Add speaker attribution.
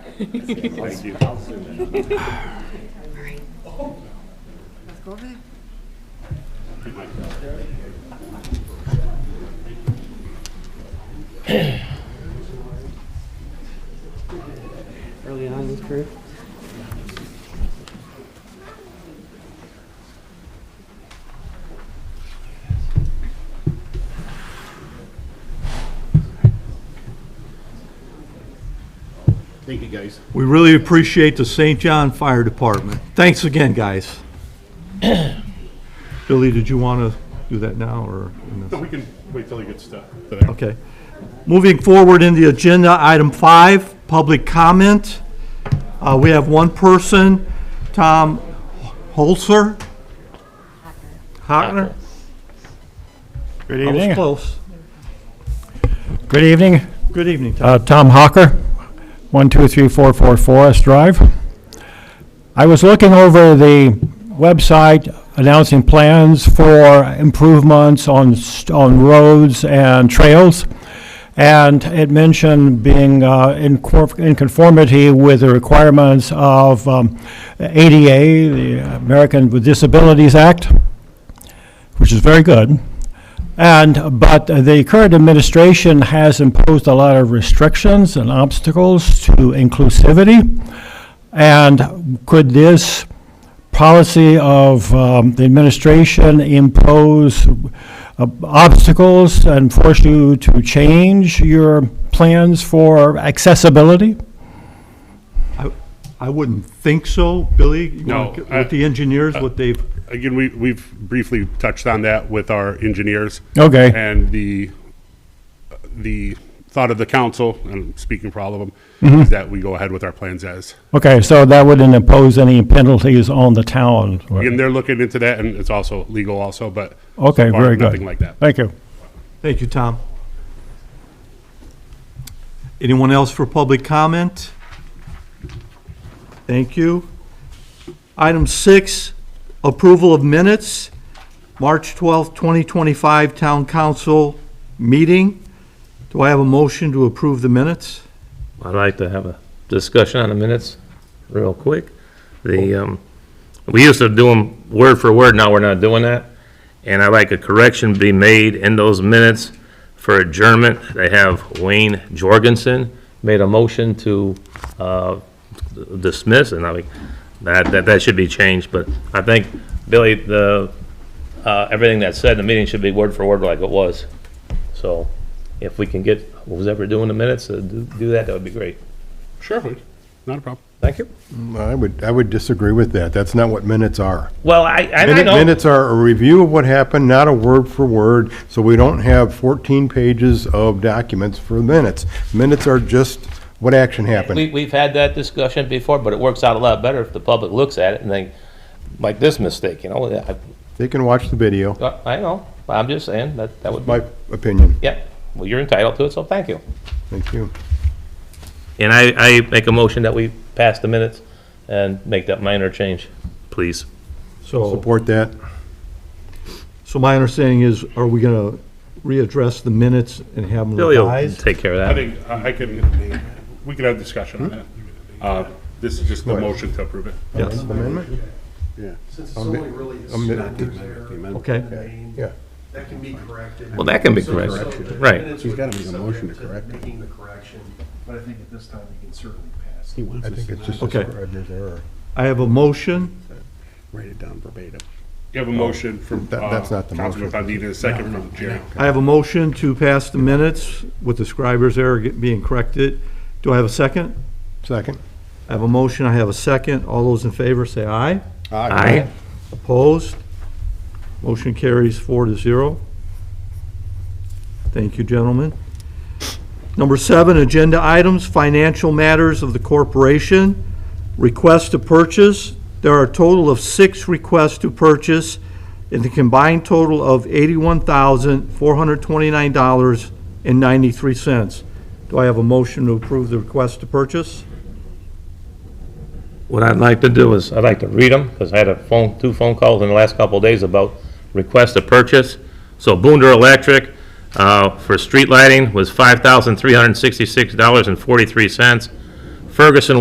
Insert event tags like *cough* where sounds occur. Speaker 1: Thank you.
Speaker 2: Let's go over there.
Speaker 3: early on in his career.
Speaker 1: Thank you, guys.
Speaker 4: We really appreciate the St. John Fire Department. Thanks again, guys. *coughs* Billy, did you want to do that now, or?
Speaker 1: So we can wait till he gets to.
Speaker 4: Okay. Moving forward in the agenda, item five, public comment. Uh, We have one person, Tom Holzer. Hockner?
Speaker 5: Good
Speaker 4: I was
Speaker 5: evening.
Speaker 4: close.
Speaker 5: Good evening.
Speaker 4: Good evening, Tom.
Speaker 5: Uh, Tom Hawker, 123444 Forest Drive. I was looking over the website announcing plans for improvements on, st- on roads and trails, and it mentioned being uh, in cor- in conformity with the requirements of um, ADA, the American with Disabilities Act, which is very good. And, but the current administration has imposed a lot of restrictions and obstacles to inclusivity. And could this policy of um, the administration impose uh, obstacles and force you to change your plans for accessibility?
Speaker 4: I wouldn't think so. Billy? you wanna
Speaker 1: No,
Speaker 4: get
Speaker 1: I-
Speaker 4: With the engineers, what they've,
Speaker 1: Again, we, we've briefly touched on that with our engineers.
Speaker 5: Okay.
Speaker 1: And the, the thought of the council, and I'm speaking for all of
Speaker 5: Mm-hmm.
Speaker 1: them, is that we go ahead with our plans as.
Speaker 5: Okay, so that wouldn't impose any penalties on the town?
Speaker 1: Again, they're looking into that and it's also legal also, but. so
Speaker 5: Okay,
Speaker 1: far,
Speaker 5: very good.
Speaker 1: Nothing like that.
Speaker 5: Thank you.
Speaker 4: thank you, Tom. Anyone else for public comment? Thank you. Item six, approval of minutes, March 12th, 2025 Town Council meeting. Do I have a motion to approve the minutes?
Speaker 6: I'd like to have a discussion on the minutes real quick. The, um, we used to do them word for word, now we're not doing that. And I'd like a correction be made in those minutes for adjournment. They have Wayne Jorgensen made a motion to, uh, dismiss, and I like, that, that, that should be changed, but I think, Billy, the, uh, everything that's said in the meeting should be word for word like it was. So if we can get, who's ever doing the minutes, uh, do do that, that would be great.
Speaker 1: Sure, not a problem.
Speaker 6: Thank you.
Speaker 7: I would, I would disagree with that. That's not what minutes are.
Speaker 6: Well, I, and I
Speaker 7: Minute-
Speaker 6: know,
Speaker 7: Minutes are a review of what happened, not a word for word, so we don't have 14 pages of documents for minutes. Minutes are just what action
Speaker 6: we,
Speaker 7: happened.
Speaker 6: we've had that discussion before, but it works out a lot better if the public looks at it and think, like this mistake, you know, I,
Speaker 7: They can watch the video,
Speaker 6: I know, but I'm just saying, that, that would, be
Speaker 7: my opinion.
Speaker 6: yeah, well, you're entitled to it, so thank you.
Speaker 7: Thank you.
Speaker 6: And I, I make a motion that we pass the minutes and make that minor change, please.
Speaker 4: So,
Speaker 7: Support that.
Speaker 4: so my understanding is, are we going to readdress the minutes and have them
Speaker 6: Billy will
Speaker 4: revised?
Speaker 6: take care of
Speaker 1: I
Speaker 6: that.
Speaker 1: think, uh, I I can, we can have discussion on that. Uh, This is just the motion to approve it.
Speaker 4: Yes,
Speaker 7: Amendment?
Speaker 8: Since it's only really the
Speaker 7: mi-
Speaker 8: structures there,
Speaker 4: okay.
Speaker 8: I mean,
Speaker 7: Yeah.
Speaker 8: that can be corrected.
Speaker 6: Well, that can be
Speaker 8: So- so
Speaker 6: corrected,
Speaker 8: the
Speaker 6: right.
Speaker 8: minutes
Speaker 7: He's
Speaker 8: would
Speaker 7: gotta
Speaker 8: be
Speaker 7: make a
Speaker 8: subject
Speaker 7: motion to correct it.
Speaker 8: Making the correction, but I think at this time we can certainly pass.
Speaker 7: I think it's just
Speaker 4: Okay.
Speaker 7: described as error.
Speaker 4: I have a motion.
Speaker 9: Write it down verbatim.
Speaker 1: You have a motion from
Speaker 7: Oh, That- that's
Speaker 1: uh,
Speaker 7: not the
Speaker 1: Councilman
Speaker 7: motion.
Speaker 1: Fandina, a second from Jerry.
Speaker 4: I have a motion to pass the minutes with the scribers error get- being corrected. Do I have a second?
Speaker 7: Second?
Speaker 4: I have a motion, I have a second. All those in favor say aye.
Speaker 6: Aye.
Speaker 4: Opposed? Motion carries four to zero. Thank you, gentlemen. Number seven, agenda items, financial matters of the corporation, request to purchase. There are a total of six requests to purchase in the combined total of $81,429.93. Do I have a motion to approve the request to purchase?
Speaker 6: What I'd like to do is, I'd like to read them, because I had a phone, two phone calls in the last couple of days about request to purchase. So Boonder Electric, uh, for street lighting was five thousand three hundred and sixty-six dollars and forty-three cents. Ferguson